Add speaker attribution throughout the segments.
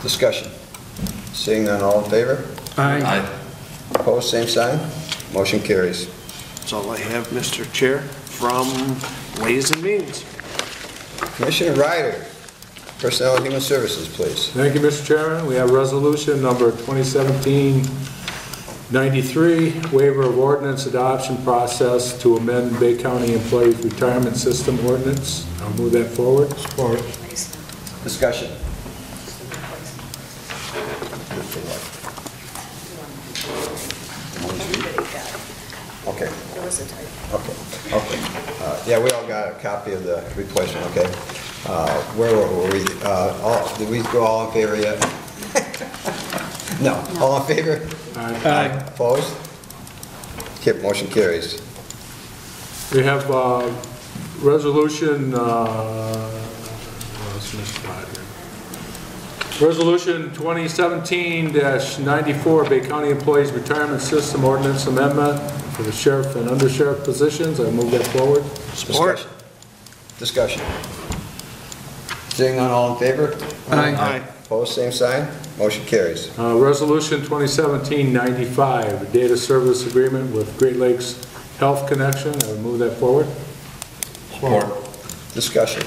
Speaker 1: Discussion. Seeing none, all in favor?
Speaker 2: Aye.
Speaker 1: Opposed, same sign? Motion carries.
Speaker 3: That's all I have, Mr. Chair, from Ways and Means.
Speaker 1: Commissioner Ryder, Personnel and Human Services, please.
Speaker 4: Thank you, Mr. Chairman. We have resolution number 2017-93, waiver of ordinance adoption process to amend Bay County Employees Retirement System ordinance. I'll move that forward. Support.
Speaker 1: Discussion. Okay,
Speaker 5: There was a typo.
Speaker 1: okay, okay. Uh, Yeah, we all got a copy of the replacement, okay? Uh, Where were we? Uh, All, did we go all in favor yet? No, all in favor?
Speaker 4: Aye.
Speaker 1: Opposed? Okay, motion carries.
Speaker 4: We have uh, resolution, uh, what's this spot here? Resolution 2017-94, Bay County Employees Retirement System Ordinance Amendment for the sheriff and undersheriff positions. I move that forward.
Speaker 1: Support. Discussion. Seeing none, all in favor?
Speaker 2: Aye.
Speaker 1: Opposed, same sign? Motion carries.
Speaker 4: Uh, Resolution 2017-95, Data Service Agreement with Great Lakes Health Connection. I would move that forward.
Speaker 1: Discussion.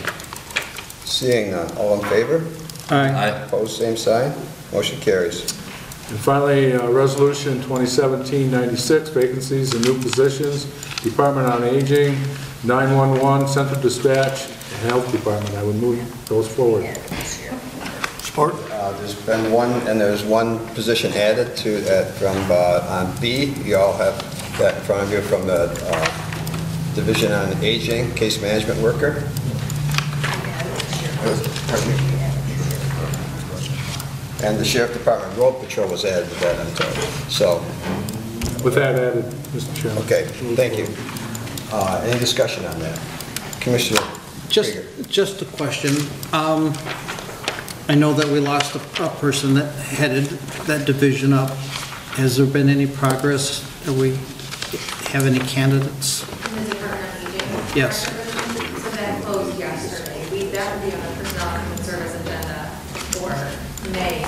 Speaker 1: Seeing none, all in favor?
Speaker 2: Aye.
Speaker 1: Opposed, same sign? Motion carries.
Speaker 4: And finally, uh, Resolution 2017-96, vacancies and new positions, Department on Aging, 911, Central Dispatch, and Health Department. I would move those forward.
Speaker 3: Support?
Speaker 1: Uh, There's been one, and there's one position added to that from, uh, on B. You all have that in front of you from the uh, Division on Aging, Case Management Worker. And the Sheriff Department Road Patrol was added to that, I'm told. So,
Speaker 4: With that added, Mr. Chairman.
Speaker 1: okay, thank you. Uh, Any discussion on that? Commissioner
Speaker 2: Just,
Speaker 1: Krieger?
Speaker 2: just a question. Um, I know that we lost a a person that headed that division up. Has there been any progress? Do we have any candidates?
Speaker 6: In the Department of Aging.
Speaker 2: Yes.
Speaker 6: So that closed yesterday. We, that will be on the personnel and human service agenda for May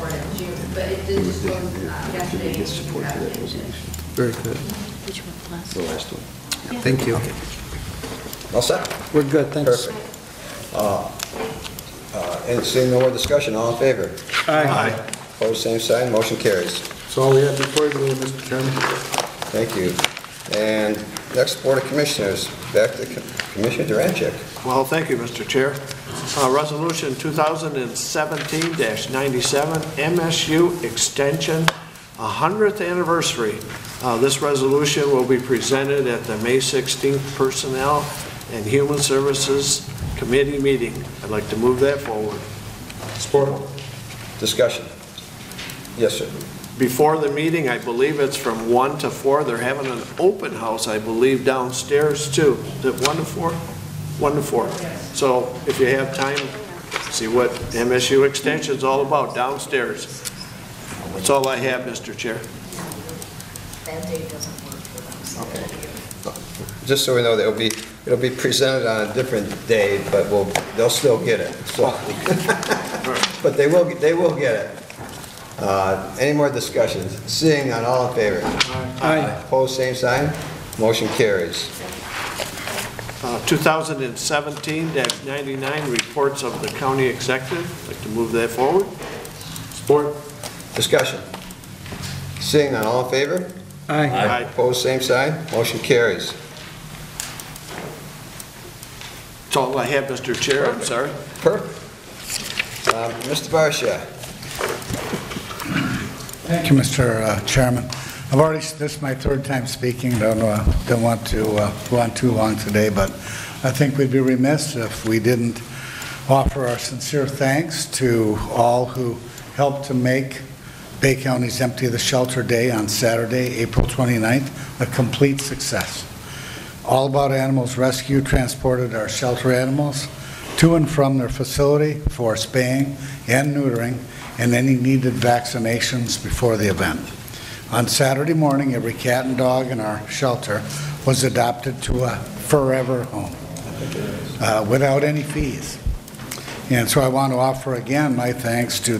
Speaker 6: or in June, but it did just close uh, yesterday. We have it.
Speaker 2: Very good.
Speaker 5: Which one last?
Speaker 1: The last one.
Speaker 2: Thank you.
Speaker 1: All set?
Speaker 2: We're good, thanks.
Speaker 1: Perfect. Uh, uh, And seeing no more discussion, all in favor?
Speaker 2: Aye.
Speaker 1: Opposed, same sign, motion carries.
Speaker 4: That's all we have before you, Mr. Chairman.
Speaker 1: Thank you. And next, Board of Commissioners, back to Commissioner Durancheck.
Speaker 3: Well, thank you, Mr. Chair. Uh, Resolution 2017-97, MSU Extension, 100th Anniversary. Uh, This resolution will be presented at the May 16th Personnel and Human Services Committee meeting. I'd like to move that forward.
Speaker 4: Support.
Speaker 1: Discussion. Yes, sir.
Speaker 3: before the meeting, I believe it's from 1 to 4, they're having an open house, I believe, downstairs too. Is it 1 to 4? 1 to 4. So if you have time, see what MSU Extension's all about downstairs. That's all I have, Mr. Chair.
Speaker 5: That date doesn't work for them, so it'll be-
Speaker 1: Just so we know, it'll be, it'll be presented on a different day, but we'll, they'll still get it, so. But they will, they will get it. Uh, Any more discussions? Seeing none, all in favor?
Speaker 2: Aye.
Speaker 1: Opposed, same sign, motion carries.
Speaker 3: Uh, 2017-99, reports of the county executive. Like to move that forward.
Speaker 4: Support.
Speaker 1: Discussion. Seeing none, all in favor?
Speaker 2: Aye.
Speaker 3: Aye.
Speaker 1: Opposed, same sign, motion carries.
Speaker 3: That's all I have, Mr. Chair, I'm sorry.
Speaker 1: Perfect. Um, Mr. Barsha,
Speaker 7: Thank you, Mr. uh, Chairman. I've already, this is my third time speaking, don't, uh, don't want to uh, go on too long today, but I think we'd be remiss if we didn't offer our sincere thanks to all who helped to make Bay County's Empty the Shelter Day on Saturday, April 29th, a complete success. All About Animals Rescue transported our shelter animals to and from their facility for spaying and neutering and any needed vaccinations before the event. On Saturday morning, every cat and dog in our shelter was adopted to a forever home uh, without any fees. And so I want to offer again my thanks to